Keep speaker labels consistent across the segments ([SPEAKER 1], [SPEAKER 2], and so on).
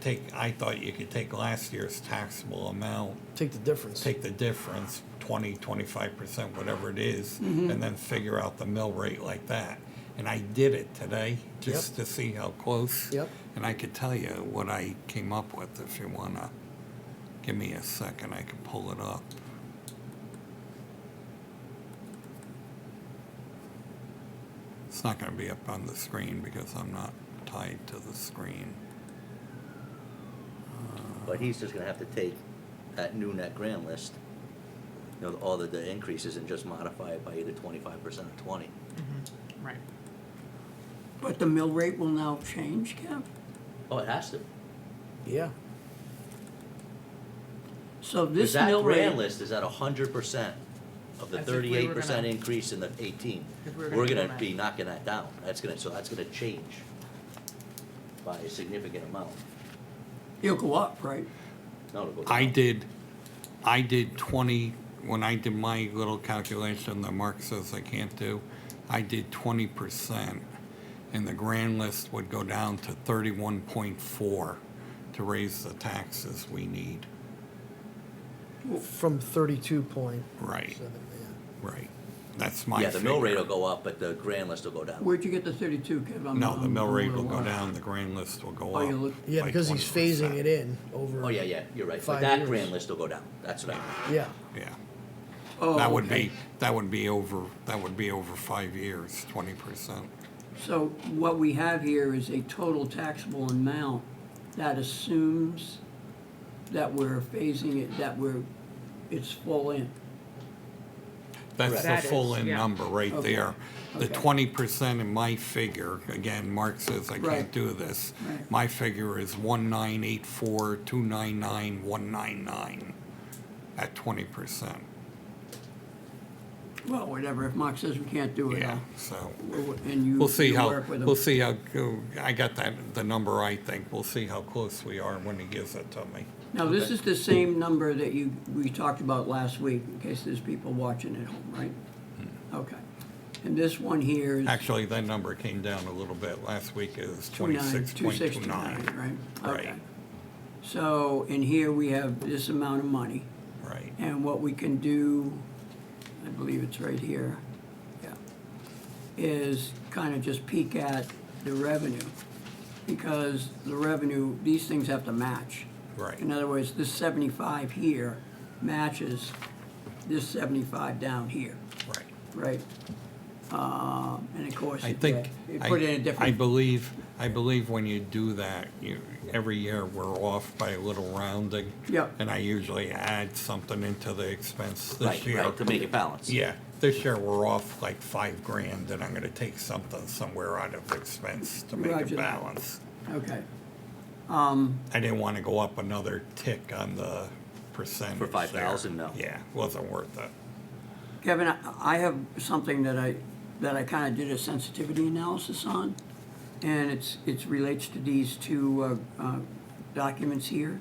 [SPEAKER 1] take, I thought you could take last year's taxable amount,
[SPEAKER 2] Take the difference.
[SPEAKER 1] take the difference, 20, 25%, whatever it is, and then figure out the mill rate like that. And I did it today just to see how close.
[SPEAKER 2] Yep.
[SPEAKER 1] And I could tell you what I came up with if you want to give me a second, I can pull it up. It's not going to be up on the screen because I'm not tied to the screen.
[SPEAKER 3] But he's just gonna have to take that new net grand list, you know, all the, the increases and just modify it by either twenty-five percent or twenty.
[SPEAKER 4] Right.
[SPEAKER 5] But the mill rate will now change, Kev?
[SPEAKER 3] Oh, it has to.
[SPEAKER 2] Yeah.
[SPEAKER 5] So
[SPEAKER 3] Cause
[SPEAKER 5] this
[SPEAKER 3] that
[SPEAKER 5] mill
[SPEAKER 3] grand
[SPEAKER 5] rate,
[SPEAKER 3] list is at hundred percent of the
[SPEAKER 4] That's if we were
[SPEAKER 3] thirty-eight percent
[SPEAKER 4] gonna-
[SPEAKER 3] increase in the eighteen.
[SPEAKER 4] If we were gonna
[SPEAKER 3] We're
[SPEAKER 4] do
[SPEAKER 3] gonna
[SPEAKER 4] that.
[SPEAKER 3] be knocking that down. That's gonna, so that's gonna change by a significant amount.
[SPEAKER 5] it'll go up, right?
[SPEAKER 3] No, it'll go
[SPEAKER 1] I
[SPEAKER 3] down.
[SPEAKER 1] did, I did 20, when I did my little calculation that Mark says I can't do, I did 20%. And the grand list would go down to 31.4 to raise the taxes we need.
[SPEAKER 2] From thirty-two point
[SPEAKER 1] Right,
[SPEAKER 2] seven, yeah.
[SPEAKER 1] right. That's my
[SPEAKER 3] Yeah, the mill rate
[SPEAKER 1] figure.
[SPEAKER 3] will go up, but the grand list will go down.
[SPEAKER 5] Where'd you get the thirty-two, Kev? I'm-
[SPEAKER 1] No, the
[SPEAKER 5] I'm-
[SPEAKER 1] mill
[SPEAKER 5] I'm a
[SPEAKER 1] rate will
[SPEAKER 5] little
[SPEAKER 1] go
[SPEAKER 5] off.
[SPEAKER 1] down, the grand list will go
[SPEAKER 5] Oh,
[SPEAKER 1] up.
[SPEAKER 5] you look-
[SPEAKER 2] Yeah,
[SPEAKER 1] by
[SPEAKER 2] because he's phasing
[SPEAKER 1] 20%.
[SPEAKER 2] it in over.
[SPEAKER 3] Oh, yeah, yeah, you're right. But
[SPEAKER 2] Five
[SPEAKER 3] that
[SPEAKER 2] years.
[SPEAKER 3] grand list will go down. That's what I mean.
[SPEAKER 2] Yeah,
[SPEAKER 1] Yeah.
[SPEAKER 5] Oh,
[SPEAKER 1] That would
[SPEAKER 5] okay.
[SPEAKER 1] be, that would be over, that would be over five years, 20%.
[SPEAKER 5] So what we have here is a total taxable amount that assumes that we're phasing it, that we're, it's full in.
[SPEAKER 1] That's
[SPEAKER 4] That
[SPEAKER 1] the
[SPEAKER 4] is,
[SPEAKER 1] full-in
[SPEAKER 4] yeah.
[SPEAKER 1] number right
[SPEAKER 5] Okay,
[SPEAKER 1] there. The
[SPEAKER 5] okay.
[SPEAKER 1] twenty percent in my figure, again, Mark says I can't
[SPEAKER 5] Right.
[SPEAKER 1] do this.
[SPEAKER 5] Right.
[SPEAKER 1] My figure is one nine eight four, two nine nine, one nine nine at twenty percent.
[SPEAKER 5] Well, whatever, if Mark says we can't do it,
[SPEAKER 1] Yeah,
[SPEAKER 5] I'll-
[SPEAKER 1] so
[SPEAKER 5] and you,
[SPEAKER 1] we'll see
[SPEAKER 5] you
[SPEAKER 1] how,
[SPEAKER 5] work with him.
[SPEAKER 1] we'll see how, go- I got that, the number I think. We'll see how close we are when he gives it to me.
[SPEAKER 5] Now, this is the same number that you, we talked about last week, in case there's people watching at home, right? Okay. And this one here is
[SPEAKER 1] Hmm. Actually, that number came down a little bit. Last week it was twenty-six point two
[SPEAKER 5] 269,
[SPEAKER 1] nine.
[SPEAKER 5] right?
[SPEAKER 1] Right.
[SPEAKER 5] Okay. So, in here we have this amount of money,
[SPEAKER 1] Right.
[SPEAKER 5] and what we can do, I believe it's right here, yeah, is kind of just peek at the revenue, because the revenue, these things have to match.
[SPEAKER 1] Right.
[SPEAKER 5] In other words, this seventy-five here matches this seventy-five down here,
[SPEAKER 1] Right.
[SPEAKER 5] right? Um, and of course,
[SPEAKER 1] I
[SPEAKER 5] it
[SPEAKER 1] think.
[SPEAKER 5] it
[SPEAKER 1] I-
[SPEAKER 5] put it in a
[SPEAKER 1] I
[SPEAKER 5] different,
[SPEAKER 1] believe, I believe when you do that, you, every year we're off by a little rounding.
[SPEAKER 5] Yep.
[SPEAKER 1] And I usually add something into the expense this
[SPEAKER 3] Right,
[SPEAKER 1] year.
[SPEAKER 3] right, to make it balance.
[SPEAKER 1] Yeah, this year we're off like five grand and I'm gonna take something somewhere out of expense to make
[SPEAKER 5] Roger
[SPEAKER 1] it
[SPEAKER 5] that.
[SPEAKER 1] balance.
[SPEAKER 5] okay,
[SPEAKER 1] I didn't wanna go up another tick on the percentage.
[SPEAKER 3] For
[SPEAKER 1] there.
[SPEAKER 3] 5,000, no.
[SPEAKER 1] Yeah, wasn't worth it.
[SPEAKER 5] Kevin, I- I have something that I, that I kind of did a sensitivity analysis on, and it's, it's relates to these two uh, uh, documents here,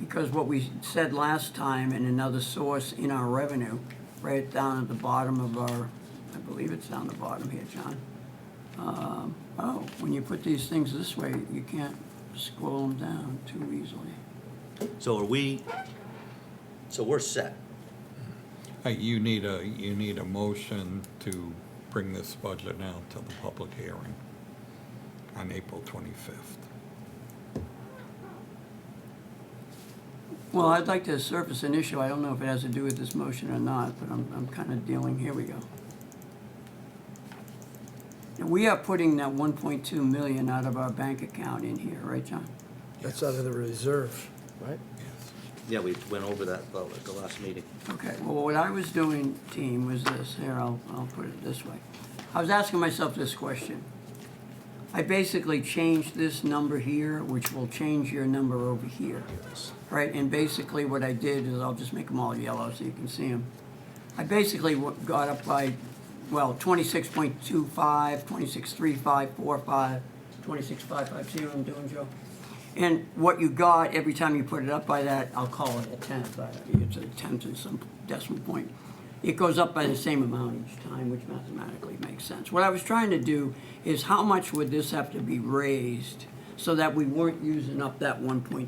[SPEAKER 5] because what we said last time in another source in our revenue, right down at the bottom of our, I believe it's down the bottom here, John. Um, Oh, when you put these things this way, you can't scroll them down too easily.
[SPEAKER 3] So are we, so we're set.
[SPEAKER 1] Uh, you need a, you need a motion to bring this budget now to the public hearing on April twenty-fifth.
[SPEAKER 5] Well, I'd like to surface an issue. I don't know if it has to do with this motion or not, but I'm, I'm kind of dealing, here we go. And We are putting that one point two million out of our bank account in here, right, John?
[SPEAKER 2] that's out of the reserve, right?
[SPEAKER 3] Yeah, we went over that the the last meeting.
[SPEAKER 5] Okay, well, what I was doing, team, was this, here, I'll, I'll put it this way. I was asking myself this question. I basically changed this number here, which will change your number over here. Right, and basically what I did is, I'll just make them all yellow so you can see them. I basically wa- got up by, well, 26.25, 26.35, 45, 26.55, see what I'm doing, Joe? And what you got, every time you put it up by that, I'll call it a tenth, I- it's a tenth and some decimal point. It goes up by the same amount each time, which mathematically makes sense. What I was trying to do is how much would this have to be raised so that we weren't using up that one point